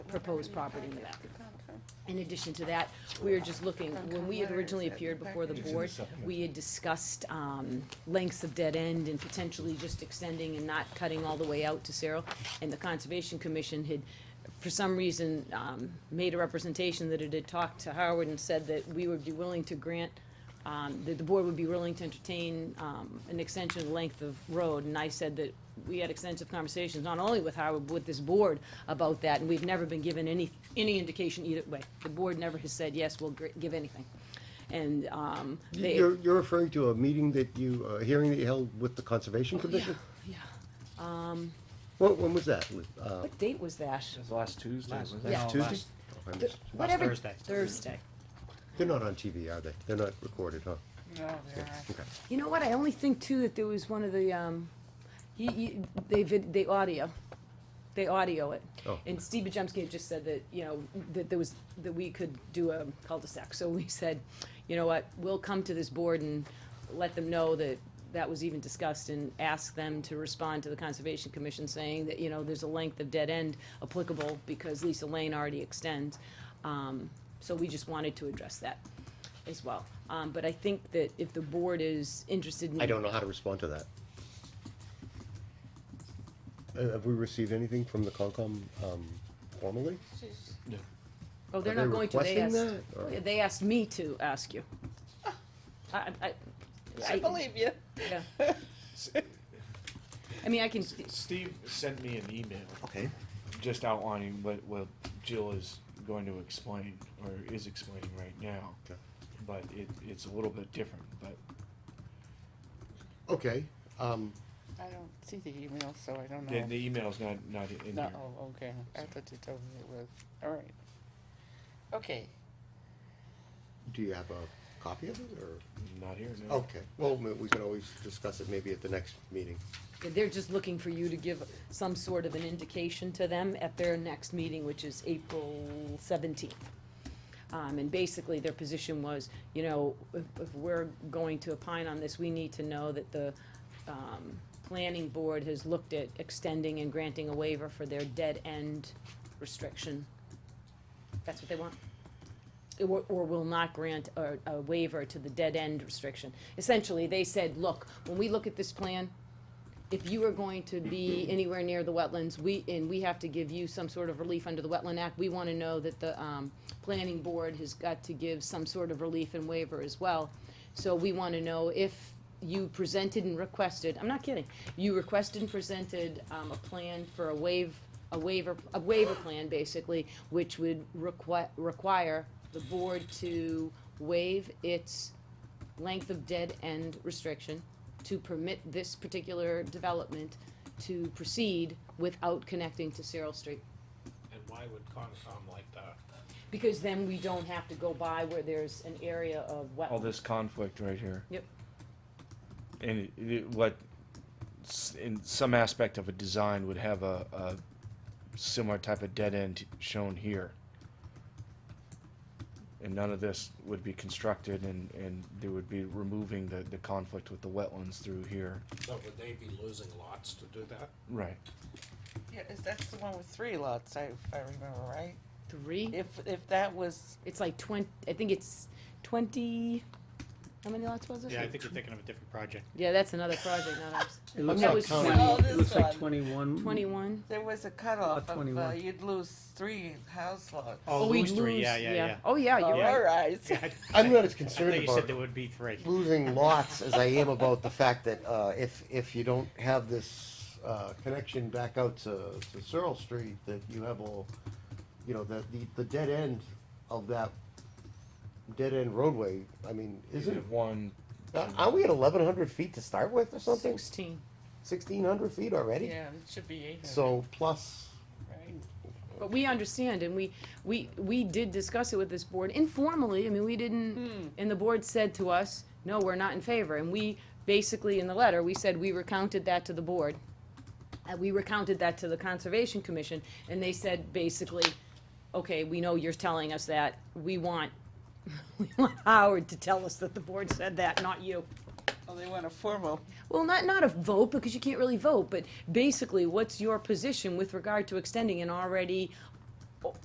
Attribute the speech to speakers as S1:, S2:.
S1: proposed property in the back. In addition to that, we were just looking, when we had originally appeared before the board, we had discussed, um, lengths of dead end and potentially just extending and not cutting all the way out to Cerro. And the Conservation Commission had, for some reason, um, made a representation that it had talked to Howard and said that we would be willing to grant, um, that the board would be willing to entertain, um, an extension of the length of road. And I said that we had extensive conversations, not only with Howard, but with this board about that, and we've never been given any, any indication either way. The board never has said, yes, we'll gr- give anything. And, um, they.
S2: You're, you're referring to a meeting that you, a hearing that you held with the Conservation Commission?
S1: Oh, Yeah.
S2: When, when was that? Uh,
S1: What date was that?
S3: It was last Tuesday,
S4: Last-
S3: wasn't it?
S1: Yeah.
S2: Last Tuesday?
S4: last-
S2: Oh, I missed.
S1: Whatever-
S4: Thursday.
S1: Thursday.
S2: They're not on TV, are they? They're not recorded, huh?
S1: Mm-hmm.
S5: No, there
S2: Okay.
S1: You know what, I only think too that there was one of the, um, he, he, they vid, they audio, they audio it.
S2: Oh.
S1: And Steve Bajemski had just said that, you know, that there was, that we could do a cul-de-sac, so we said, you know what, we'll come to this board and let them know that that was even discussed and ask them to respond to the Conservation Commission saying that, you know, there's a length of dead end applicable because Lisa Lane already extends. Um, so we just wanted to address that as well. Um, but I think that if the board is interested in.
S2: I don't know how to respond to that. Uh, Have we received anything from the Concom um, formally?
S1: Oh, they're
S2: Are
S1: not going
S2: they
S1: to, they asked,
S2: requesting that, or-
S1: Oh, yeah, they asked me to ask you. I, I, I.
S5: I believe you.
S1: yeah. I mean, I can,
S3: Steve sent me an email
S2: Okay.
S3: just outlining what, what Jill is going to explain, or is explaining right now.
S2: Okay.
S3: But it, it's a little bit different, but
S2: Okay, um,
S5: I don't see the email, so I don't
S3: the, the
S5: know.
S3: email's not, not in
S5: No,
S3: here.
S5: oh, okay. I thought you told me it was. All right. Okay.
S2: do you have a copy of it, or?
S3: Not here, no.
S2: Okay, well, we we can always discuss it maybe at the next meeting.
S1: they're just looking for you to give some sort of an indication to them at their next meeting, which is April seventeenth. Um, and basically, their position was, you know, if, if we're going to opine on this, we need to know that the, um, planning board has looked at extending and granting a waiver for their dead-end restriction. That's what they want. Or, or will not grant a, a waiver to the dead-end restriction. Essentially, they said, look, when we look at this plan, if you are going to be anywhere near the wetlands, we, and we have to give you some sort of relief under the Wetland Act, we want to know that the, um, planning board has got to give some sort of relief and waiver as well. So we want to know if you presented and requested, I'm not kidding, you requested and presented, um, a plan for a waive, a waiver, a waiver plan, basically, which would requi- require the board to waive its length of dead end restriction to permit this particular development to proceed without connecting to Cyril Street.
S6: And why would Concom like that?
S1: Because then we don't have to go by where there's an area of
S3: All
S1: wetland.
S3: this conflict right here.
S1: Yep.
S3: And it, it, what, s- in some aspect of a design would have a, a similar type of dead end shown here. And none of this would be constructed and, and they would be removing the, the conflict with the wetlands through here.
S6: So would they be losing lots to do that?
S3: Right.
S5: Yeah, is that's the one with three lots, I, if I remember right.
S1: Three,
S5: If, if that was,
S1: it's like twenty, I think it's twenty, how many lots was it?
S4: Yeah, I think you're thinking of a different project.
S1: Yeah, that's another project, not ours.
S7: It looks
S1: That
S7: like
S1: was
S5: No,
S7: twenty,
S5: this
S7: Oh, it looks like
S5: one.
S7: twenty-one.
S1: Twenty-one?
S5: there was a cutoff
S7: Lot
S5: of, uh,
S7: 21.
S5: you'd lose three house lots.
S4: Oh,
S1: we
S4: Louis three, yeah,
S1: lose-
S4: yeah, yeah.
S1: Oh, yeah,
S5: Oh,
S1: you're
S5: all
S1: right.
S5: right.
S4: Yeah, I-
S2: I'm not as
S4: I thought
S2: concerned
S4: you said
S2: about
S4: there would be three.
S2: losing lots as I am about the fact that uh, if, if you don't have this uh, connection back out to, to Searle Street, that you have all, you know, that the, the dead end of that dead end roadway, I mean, isn't,
S3: One,
S2: aren't we at eleven hundred feet to start with or something?
S1: Sixteen.
S2: Sixteen hundred feet already?
S5: Yeah, it should be eight hundred,
S2: So plus,
S5: right?
S1: But we understand, and we, we, we did discuss it with this board informally, I mean, we didn't, and the board said to us, no, we're not in favor, and we, basically, in the letter, we said we recounted that to the board. And we recounted that to the Conservation Commission, and they said, basically, okay, we know you're telling us that, we want, we want Howard to tell us that the board said that, not you.
S5: Oh, they want a formal,
S1: Well, not, not a vote, because you can't really vote, but basically, what's your position with regard to extending an already